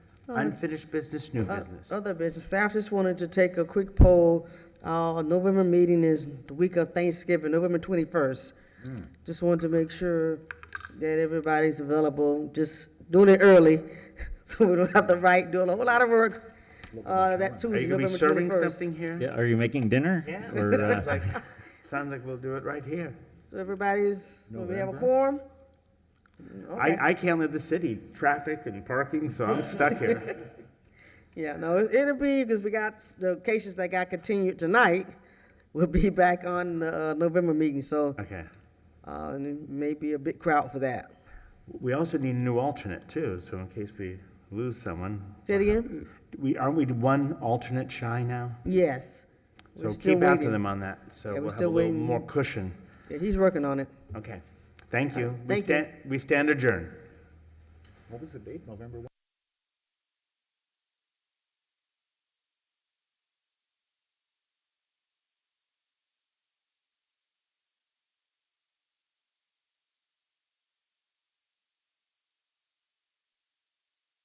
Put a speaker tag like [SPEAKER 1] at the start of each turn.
[SPEAKER 1] Oh,
[SPEAKER 2] Unfinished business,
[SPEAKER 1] Uh,
[SPEAKER 2] new business.
[SPEAKER 1] Other business, staff just wanted to take a quick poll. Our November meeting is the week of Thanksgiving, November twenty-first.
[SPEAKER 2] Hmm.
[SPEAKER 1] Just wanted to make sure that everybody's available, just doing it early, so we don't have to write, do a whole lot of work, uh, that
[SPEAKER 2] Are
[SPEAKER 1] Tuesday,
[SPEAKER 2] you gonna be
[SPEAKER 1] November
[SPEAKER 2] serving
[SPEAKER 1] twenty-first.
[SPEAKER 2] something here?
[SPEAKER 3] Yeah, are you making dinner?
[SPEAKER 2] Yeah,
[SPEAKER 3] Or,
[SPEAKER 2] sounds
[SPEAKER 3] uh,
[SPEAKER 2] like, sounds like we'll do it right here.
[SPEAKER 1] So everybody's, will we have a
[SPEAKER 3] November?
[SPEAKER 1] quorum? Okay.
[SPEAKER 2] I, I can't live the city, traffic and parking, so I'm stuck here.
[SPEAKER 1] Yeah, no, it- it'll be, because we got, s- the cases that got continued tonight will be back on the uh, November meeting, so,
[SPEAKER 2] Okay.
[SPEAKER 1] uh, and it may be a big crowd for that.
[SPEAKER 2] We also need a new alternate too, so in case we lose someone.
[SPEAKER 1] Say it again?
[SPEAKER 2] We, aren't we one alternate shy now?
[SPEAKER 1] Yes.
[SPEAKER 2] So
[SPEAKER 1] We're still
[SPEAKER 2] keep after
[SPEAKER 1] waiting.
[SPEAKER 2] them on that, so
[SPEAKER 1] Yeah, we're
[SPEAKER 2] we'll have a
[SPEAKER 1] still
[SPEAKER 2] little
[SPEAKER 1] waiting.
[SPEAKER 2] more cushion.
[SPEAKER 1] Yeah, he's working on it.
[SPEAKER 2] Okay, thank you. We
[SPEAKER 1] Uh, Thank you.
[SPEAKER 2] stand- We stand adjourned.
[SPEAKER 4] What was the date? November